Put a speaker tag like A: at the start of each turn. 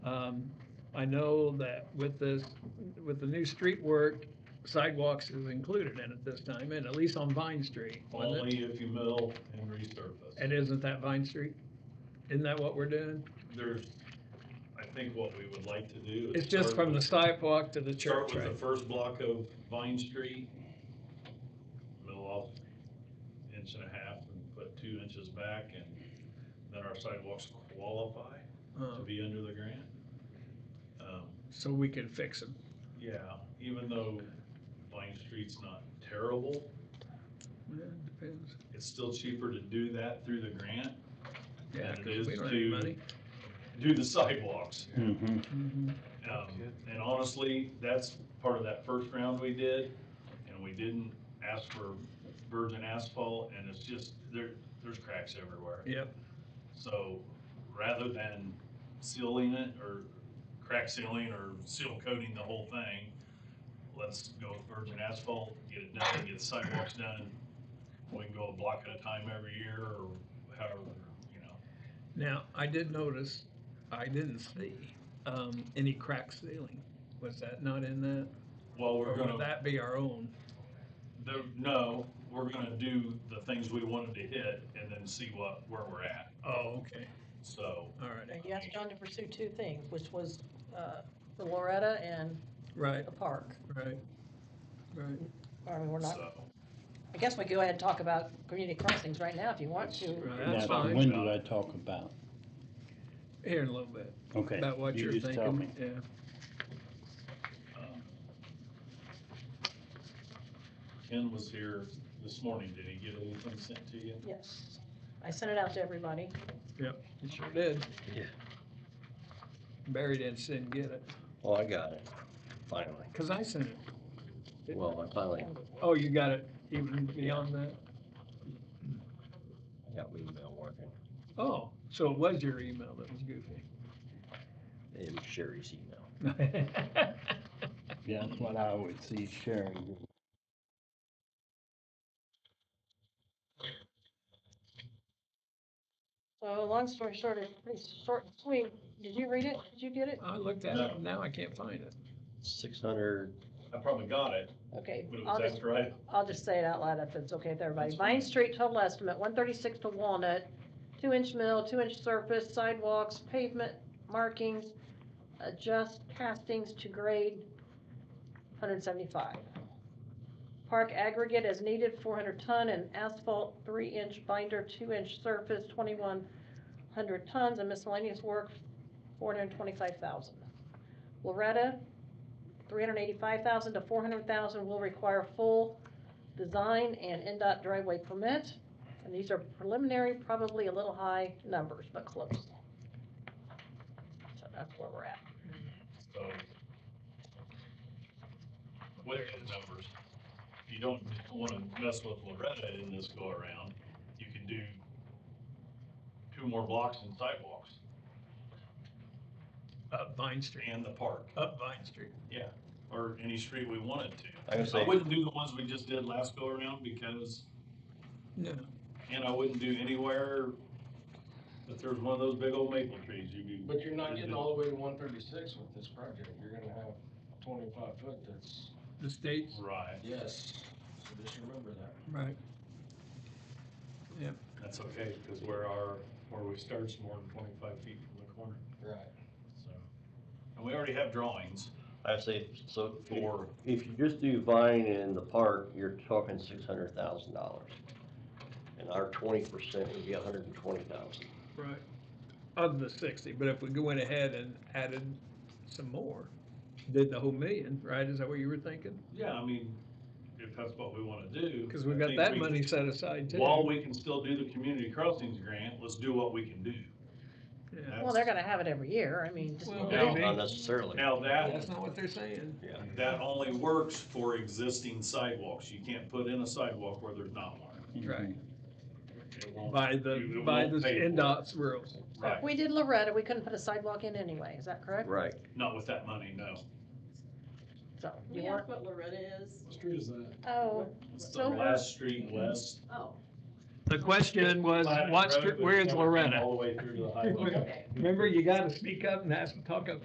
A: Um, I know that with this, with the new street work, sidewalks is included in it this time, and at least on Vine Street. wasn't it?
B: Only if you mill and resurface.
A: And isn't that Vine Street? Isn't that what we're doing?
B: There's, I think what we would like to do is.
A: It's just
B: start
A: from the
B: with-
A: sidewalk to the
B: Start
A: church,
B: with the
A: right?
B: first block of Vine Street, mill off inch and a half and put two inches back and then our sidewalks qualify to
A: Uh,
B: be under the grant. Um,
A: So we can fix them.
B: Yeah, even though Vine Street's not terrible,
A: Yeah, it depends.
B: it's still cheaper to do that through the grant,
A: Yeah,
B: And it
A: because we
B: is
A: don't have any
B: to-
A: money.
B: do the sidewalks.
C: Mhm.
A: Mhm.
B: Um, and honestly, that's part of that first round we did, and we didn't ask for virgin asphalt, and it's just, there, there's cracks everywhere.
A: Yep,
B: So rather than sealing it or crack sealing or seal coating the whole thing, let's go with virgin asphalt, get it done, get the sidewalks done. We can go a block at a time every year or however, you know.
A: now, I did notice, I didn't see, um, any crack ceiling. Was that not in that?
B: Well,
A: Or
B: we're gonna.
A: would that be our own?
B: The, no, we're gonna do the things we wanted to hit and then see what, where we're at,
A: Oh, okay,
B: so.
A: all right,
D: And you asked John to pursue two things, which was uh, the Loretta and
A: right,
D: the park.
A: right, right.
D: I mean, we're not,
B: so,
D: I guess we go ahead and talk about community crossings right now if you want to.
A: Right,
C: Now,
A: That's
B: fine.
C: when did I talk about?
A: Here in a little bit,
C: Okay.
A: about what
C: you
A: you're
C: just tell me.
A: thinking, yeah.
B: um, Ken was here this morning, did he get anything sent to you?
D: Yes. I sent it out to everybody.
A: You sure did.
E: Yeah.
A: Barry didn't send, get it,
E: Well, Oh, I got it, finally.
A: cause I sent it. Didn't
E: Well, I finally,
A: Oh, you got it even beyond that?
E: I got my email working,
A: Oh, so it was your email that was goofy.
E: it was Sherry's email.
C: Yeah, that's what I would see sharing.
D: So long story short, it's pretty short and sweet. Did you read it? Did you get it?
A: I looked at
B: No.
A: it, now I can't find it.
E: Six hundred,
B: I probably got it,
D: Okay,
B: but it
D: I'll
B: was
D: just,
B: after I,
D: I'll just say it out loud if it's okay with everybody.
B: That's fine.
D: Vine Street total estimate, one thirty-six to Walnut, two inch mill, two inch surface, sidewalks, pavement markings, adjust castings to grade, hundred seventy-five. Park aggregate as needed, four hundred ton, and asphalt, three inch binder, two inch surface, twenty-one hundred tons, and miscellaneous work, four hundred twenty-five thousand. Loretta, three hundred eighty-five thousand to four hundred thousand will require full design and NDOT driveway permit. And these are preliminary, probably a little high numbers, but close. So that's where we're at.
B: so. What are the numbers? If you don't wanna mess with Loretta in this go around, you can do two more blocks and sidewalks
A: Up Vine Street,
B: and the park.
A: up Vine Street.
B: Yeah, or any street we wanted to.
E: I was
B: I
E: say,
B: wouldn't do the ones we just did last go around because,
A: No,
B: and I wouldn't do anywhere if there's one of those big old maple trees you do.
F: But you're not getting all the way to one thirty-six with this project, you're gonna have twenty-five foot that's,
A: the state's,
B: Right,
F: yes, so just remember that.
A: right,
B: that's okay, cause where our, where we start's more than twenty-five feet from the corner,
F: Right.
B: so. And we already have drawings
E: I say, so for,
B: for,
E: if you just do Vine and the park, you're talking six hundred thousand dollars. And our twenty percent would be a hundred and twenty thousand.
A: right. Of the sixty, but if we go in ahead and added some more, did the whole million, right? Is that what you were thinking?
B: yeah, I mean, if that's what we wanna do.
A: Cause we've
B: I
A: got
B: think
A: that
B: we-
A: money set aside too.
B: While we can still do the community crossings grant, let's do what we can do.
A: Yeah.
D: Well, they're gonna have it every year, I mean, just.
A: Well,
E: Now,
A: maybe.
E: not necessarily.
B: Now that
A: That's not what they're saying.
E: Yeah.
B: That only works for existing sidewalks. You can't put in a sidewalk where there's not one.
A: Right.
B: It won't-
A: By
B: it
A: the,
B: won't
A: by the
B: pay for it.
A: NDOT's rules.
D: If
B: Right,
D: we did Loretta, we couldn't put a sidewalk in anyway, is that correct?
E: Right,
B: not with that money, no.
D: So, you
G: We asked
D: want,
G: what Loretta is.
F: What street is that?
D: oh,
B: It's the
D: So-
B: last street west.
G: Oh,
A: The question was,
B: Platte
A: what's,
B: Road, but
A: where's
B: it's never been
A: Loretta?
B: All the way through to the highway.
G: okay.
A: Remember, you gotta speak up and ask, talk up